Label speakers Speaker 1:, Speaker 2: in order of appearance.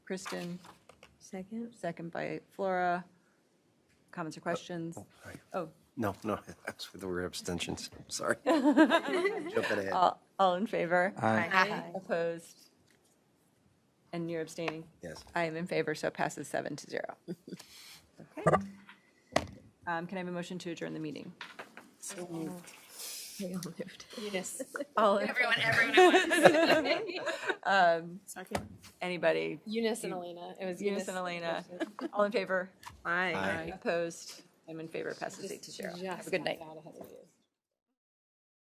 Speaker 1: Second?
Speaker 2: second by Flora. Comments or questions?
Speaker 3: Sorry.
Speaker 2: Oh,
Speaker 3: No, no, that's, there were abstentions, sorry. Jumping ahead.
Speaker 2: all, all in favor?
Speaker 1: Aye.
Speaker 2: Opposed? And you're abstaining?
Speaker 3: Yes.
Speaker 2: I am in favor, so it passes seven to zero. Okay. Um, Can I have a motion to adjourn the meeting?
Speaker 1: We all moved.
Speaker 4: Yes.
Speaker 2: All, in- um,
Speaker 4: Everyone, everyone.
Speaker 1: Second.
Speaker 2: anybody?
Speaker 4: Eunice and Elena. It was
Speaker 2: E Eunice and Elena. All in favor?
Speaker 1: Aye.
Speaker 3: Aye.
Speaker 2: Opposed? I'm in favor, passes eight to zero. Have a good night.
Speaker 4: Out ahead of you.